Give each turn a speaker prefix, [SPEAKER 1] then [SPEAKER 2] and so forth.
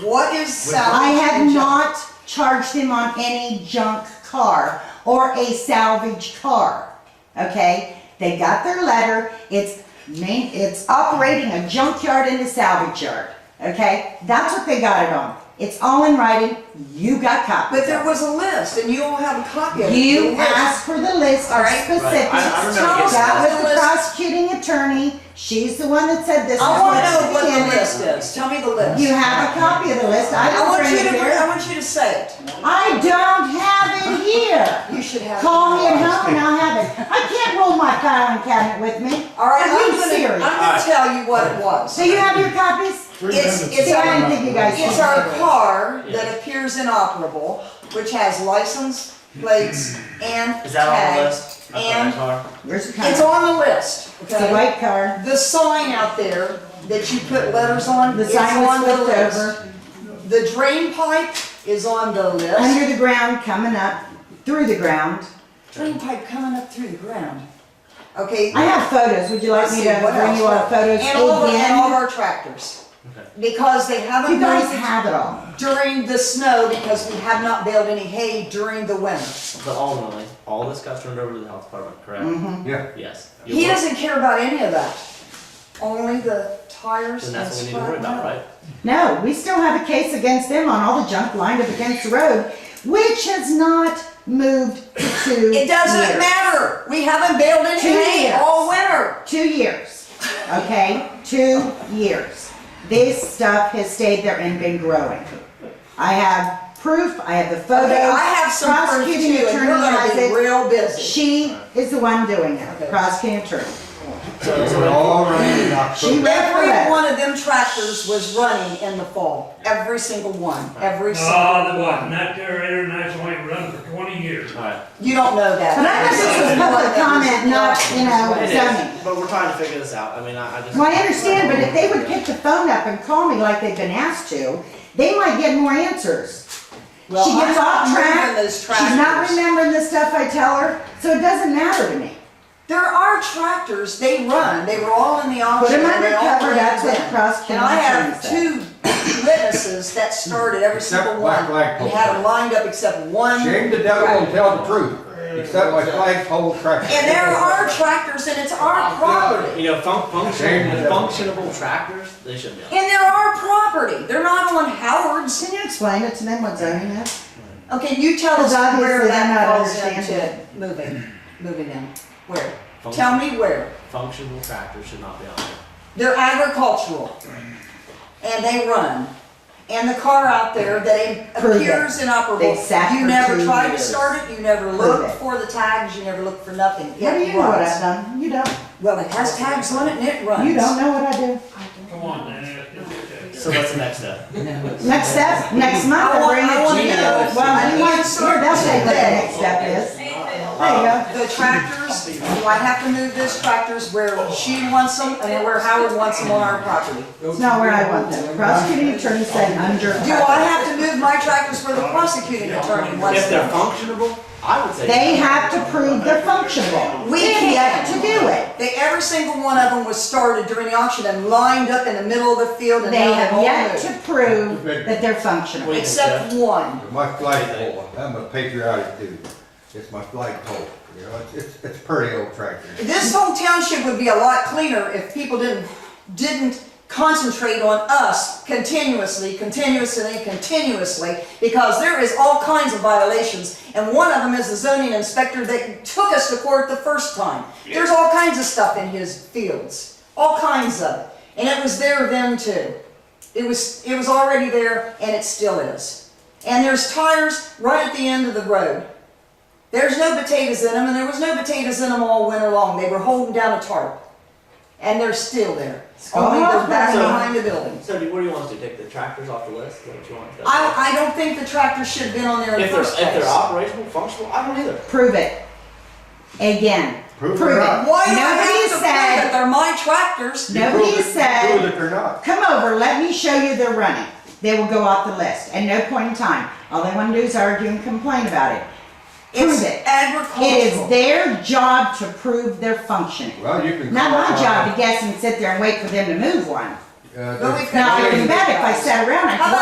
[SPEAKER 1] What is salvage?
[SPEAKER 2] I have
[SPEAKER 1] and junk?
[SPEAKER 2] not charged him on any junk car or a salvage car. Okay? They got their letter. It's main, it's operating a junkyard and a salvage yard. Okay? That's what they got it on. It's all in writing. You got copies.
[SPEAKER 1] But there
[SPEAKER 2] of
[SPEAKER 1] was a list, and you all have a copy of
[SPEAKER 2] it.
[SPEAKER 1] it. The
[SPEAKER 2] You
[SPEAKER 1] list.
[SPEAKER 2] asked for the list
[SPEAKER 1] All
[SPEAKER 2] of
[SPEAKER 1] right.
[SPEAKER 2] specifics.
[SPEAKER 3] Right. I- I remember
[SPEAKER 1] getting
[SPEAKER 2] That
[SPEAKER 1] that.
[SPEAKER 2] was the prosecuting attorney. She's the one that said this. is
[SPEAKER 1] I wanna
[SPEAKER 2] what's
[SPEAKER 1] know what
[SPEAKER 2] in
[SPEAKER 1] the
[SPEAKER 2] it.
[SPEAKER 1] list is, tell me the list.
[SPEAKER 2] You have a copy of the list. I
[SPEAKER 1] I
[SPEAKER 2] don't
[SPEAKER 1] want
[SPEAKER 2] bring
[SPEAKER 1] you
[SPEAKER 2] it
[SPEAKER 1] to,
[SPEAKER 2] here.
[SPEAKER 1] I want you to say it.
[SPEAKER 2] I don't have it here.
[SPEAKER 1] You should have. it.
[SPEAKER 2] Call me at home and I'll have it. I can't roll my filing cabinet with me.
[SPEAKER 1] All right,
[SPEAKER 2] Are
[SPEAKER 1] I'm
[SPEAKER 2] you
[SPEAKER 1] gonna, I'm
[SPEAKER 2] serious?
[SPEAKER 1] gonna tell you what it was.
[SPEAKER 2] So you have your copies?
[SPEAKER 1] It's, it's
[SPEAKER 2] See, I didn't
[SPEAKER 1] our,
[SPEAKER 2] think you guys.
[SPEAKER 1] it's
[SPEAKER 2] did.
[SPEAKER 1] our car that appears inoperable, which has license, plates, and
[SPEAKER 3] Is that on the
[SPEAKER 1] tag.
[SPEAKER 3] list? I thought I saw her.
[SPEAKER 2] Where's the
[SPEAKER 1] It's
[SPEAKER 2] car?
[SPEAKER 1] on the list,
[SPEAKER 2] It's a
[SPEAKER 1] okay?
[SPEAKER 2] white car.
[SPEAKER 1] The sign out there that you put letters on,
[SPEAKER 2] The
[SPEAKER 1] it's
[SPEAKER 2] sign was
[SPEAKER 1] on the
[SPEAKER 2] flipped
[SPEAKER 1] list.
[SPEAKER 2] over,
[SPEAKER 1] The drain pipe is on the list.
[SPEAKER 2] under the ground, coming up, through the ground.
[SPEAKER 1] Drain pipe coming up through the ground. Okay,
[SPEAKER 2] I have photos. Would you like me to
[SPEAKER 1] Let's see, what
[SPEAKER 2] bring you all
[SPEAKER 1] else?
[SPEAKER 2] the photos
[SPEAKER 1] and all, of- and all of
[SPEAKER 2] again?
[SPEAKER 1] our tractors,
[SPEAKER 3] Okay.
[SPEAKER 1] because they haven't.
[SPEAKER 2] You guys
[SPEAKER 1] moved it
[SPEAKER 2] have it all.
[SPEAKER 1] During the snow, because we have not baled any hay during the winter.
[SPEAKER 3] But ultimately, all this got turned over to the health department, correct?
[SPEAKER 2] Mm-hmm.
[SPEAKER 4] Yeah.
[SPEAKER 3] Yes.
[SPEAKER 1] He
[SPEAKER 3] You're-
[SPEAKER 1] doesn't care about any of that. Only the tires
[SPEAKER 3] Then
[SPEAKER 1] and
[SPEAKER 3] that's what we need to worry about, right?
[SPEAKER 2] No, we still have a case against them on all the junk lined up against the road, which has not moved to two
[SPEAKER 1] It doesn't
[SPEAKER 2] years.
[SPEAKER 1] matter. We haven't baled any
[SPEAKER 2] Two
[SPEAKER 1] hay
[SPEAKER 2] years.
[SPEAKER 1] all winter.
[SPEAKER 2] Two years, okay? Two years. This stuff has stayed there and been growing. I have proof, I have the photos.
[SPEAKER 1] Okay, I have some proof too,
[SPEAKER 2] Prosecuting
[SPEAKER 1] and
[SPEAKER 2] attorney
[SPEAKER 1] you're gonna
[SPEAKER 2] has
[SPEAKER 1] be
[SPEAKER 2] it.
[SPEAKER 1] real busy.
[SPEAKER 2] She is the one doing
[SPEAKER 1] Okay.
[SPEAKER 2] it, prosecuting attorney.
[SPEAKER 4] They were all running in
[SPEAKER 2] She
[SPEAKER 4] October.
[SPEAKER 2] read
[SPEAKER 1] Every
[SPEAKER 2] the letter.
[SPEAKER 1] one of them tractors was running in the fall. Every single one. Every
[SPEAKER 5] Ah,
[SPEAKER 1] single
[SPEAKER 5] the one,
[SPEAKER 1] one.
[SPEAKER 5] that there international ain't run for twenty years.
[SPEAKER 3] Alright.
[SPEAKER 1] You don't know that.
[SPEAKER 2] But I thought this was public comment, not, you know,
[SPEAKER 3] It
[SPEAKER 2] zoning.
[SPEAKER 3] is, but we're trying to figure this out. I mean, I, I just.
[SPEAKER 2] Well, I understand, but if they would pick the phone up and call me like they've been asked to, they might get more answers.
[SPEAKER 1] Well,
[SPEAKER 2] she
[SPEAKER 1] I'm
[SPEAKER 2] gets
[SPEAKER 1] not
[SPEAKER 2] off track.
[SPEAKER 1] moving those
[SPEAKER 2] She's not
[SPEAKER 1] tractors.
[SPEAKER 2] remembering the stuff I tell her, so it doesn't matter to me.
[SPEAKER 1] There are tractors, they run, they were all in the auction.
[SPEAKER 2] Put 'em under
[SPEAKER 1] they all
[SPEAKER 2] cover,
[SPEAKER 1] ran
[SPEAKER 2] that's what
[SPEAKER 1] them.
[SPEAKER 2] the prosecuting
[SPEAKER 1] And I have two
[SPEAKER 2] attorney
[SPEAKER 1] witnesses that started every
[SPEAKER 4] Except
[SPEAKER 1] single one.
[SPEAKER 4] Black Lag
[SPEAKER 1] You had them lined up except
[SPEAKER 2] Um,
[SPEAKER 1] one.
[SPEAKER 4] Shame the devil and tell the truth, except my flagpole tractor.
[SPEAKER 1] And there are tractors and it's
[SPEAKER 4] Oh,
[SPEAKER 1] our property.
[SPEAKER 3] You know, fun-
[SPEAKER 4] Shame
[SPEAKER 3] functional,
[SPEAKER 4] the devil.
[SPEAKER 3] functionable tractors, they should be on.
[SPEAKER 1] And they're our property, they're not on Howard's.
[SPEAKER 2] Can you explain it to them what zoning is?
[SPEAKER 1] Okay, you tell us
[SPEAKER 2] Because obviously
[SPEAKER 1] where
[SPEAKER 2] they're
[SPEAKER 1] that
[SPEAKER 2] not
[SPEAKER 1] falls into
[SPEAKER 2] understanding.
[SPEAKER 1] moving, moving them. Where?
[SPEAKER 3] Function-
[SPEAKER 1] Tell me where.
[SPEAKER 3] Functional tractors should not be on there.
[SPEAKER 1] They're agricultural. And they run. And the car out there that
[SPEAKER 2] Prove it.
[SPEAKER 1] appears inoperable,
[SPEAKER 2] They sat
[SPEAKER 1] you
[SPEAKER 2] for
[SPEAKER 1] never
[SPEAKER 2] two
[SPEAKER 1] tried to
[SPEAKER 2] years.
[SPEAKER 1] start it, you never
[SPEAKER 2] Prove
[SPEAKER 1] looked
[SPEAKER 2] it.
[SPEAKER 1] for the tags, you never looked for nothing.
[SPEAKER 2] What do
[SPEAKER 1] It
[SPEAKER 2] you know what
[SPEAKER 1] runs.
[SPEAKER 2] I've done? You don't.
[SPEAKER 1] Well, it has tags on it and it runs.
[SPEAKER 2] You don't know what I do.
[SPEAKER 5] Come on, man. it's- it's-
[SPEAKER 3] So what's the next step?
[SPEAKER 2] Next step, next month,
[SPEAKER 1] I
[SPEAKER 2] I'll
[SPEAKER 1] want-
[SPEAKER 2] bring it
[SPEAKER 1] I want
[SPEAKER 2] to you.
[SPEAKER 1] to know. I
[SPEAKER 2] Well, you
[SPEAKER 1] need
[SPEAKER 2] want,
[SPEAKER 1] some
[SPEAKER 2] here, they'll say what the
[SPEAKER 1] today.
[SPEAKER 2] next step is. There you
[SPEAKER 1] The tractors, do I have to move this tractors where she wants them and where Howard wants them on our property?
[SPEAKER 2] go. It's not where I want them. Prosecuting attorney said under.
[SPEAKER 1] Do I have to move my tractors where the prosecuting attorney wants
[SPEAKER 3] If they're
[SPEAKER 1] them?
[SPEAKER 3] functionable, I would say.
[SPEAKER 2] They have to prove they're functional.
[SPEAKER 1] We
[SPEAKER 2] They have
[SPEAKER 1] can't.
[SPEAKER 2] To do it.
[SPEAKER 1] They, every single one of them was started during the auction and lined up in the middle of the field and
[SPEAKER 2] They
[SPEAKER 1] now they've
[SPEAKER 2] have
[SPEAKER 1] all
[SPEAKER 2] yet
[SPEAKER 1] moved.
[SPEAKER 2] to prove that they're functional.
[SPEAKER 3] Wait.
[SPEAKER 1] Except one.
[SPEAKER 4] My flagpole, I'm a patriotic dude. It's my flagpole, you know, it's- it's, it's pretty old tractor.
[SPEAKER 1] This whole township would be a lot cleaner if people didn't, didn't concentrate on us continuously, continuously, continuously, because there is all kinds of violations, and one of them is the zoning inspector that took us to court the first time. There's all kinds of stuff in his fields, all kinds of it, and it was there then too. It was, it was already there, and it still is. And there's tires right at the end of the road. There's no potatoes in them, and there was no potatoes in them all winter long. They were holding down a tarp, and they're still there. Only
[SPEAKER 2] Uh-huh.
[SPEAKER 1] they're back
[SPEAKER 3] So-
[SPEAKER 1] behind the buildings.
[SPEAKER 3] So do- what do you want us to do? Take the tractors off the list? Is that what you want? us to do?
[SPEAKER 1] I, I don't think the tractor should have been on there in the
[SPEAKER 3] If they're,
[SPEAKER 1] first place.
[SPEAKER 3] if they're operational, functional, I don't either.
[SPEAKER 2] Prove it. Again.
[SPEAKER 4] Prove it
[SPEAKER 2] Prove
[SPEAKER 4] or
[SPEAKER 2] it.
[SPEAKER 4] not.
[SPEAKER 1] Why do I
[SPEAKER 2] Nobody
[SPEAKER 1] have to prove that
[SPEAKER 2] said,
[SPEAKER 1] they're my tractors?
[SPEAKER 4] You
[SPEAKER 2] nobody
[SPEAKER 4] prove it- you
[SPEAKER 2] said.
[SPEAKER 4] Prove it or not.
[SPEAKER 2] come over, let me show you they're running. They will go off the list at no point in time. All they want to do is argue and complain about it. Prove
[SPEAKER 1] It's
[SPEAKER 2] it. It is
[SPEAKER 1] agricultural.
[SPEAKER 2] their job to prove their functioning.
[SPEAKER 4] Well, you can.
[SPEAKER 2] Not my
[SPEAKER 4] call, uh,
[SPEAKER 2] job to guess and sit there and wait for them to move one.
[SPEAKER 4] uh,
[SPEAKER 1] But we
[SPEAKER 4] the-
[SPEAKER 1] can-
[SPEAKER 2] Now, I can bet if I sat around, I
[SPEAKER 1] How
[SPEAKER 2] could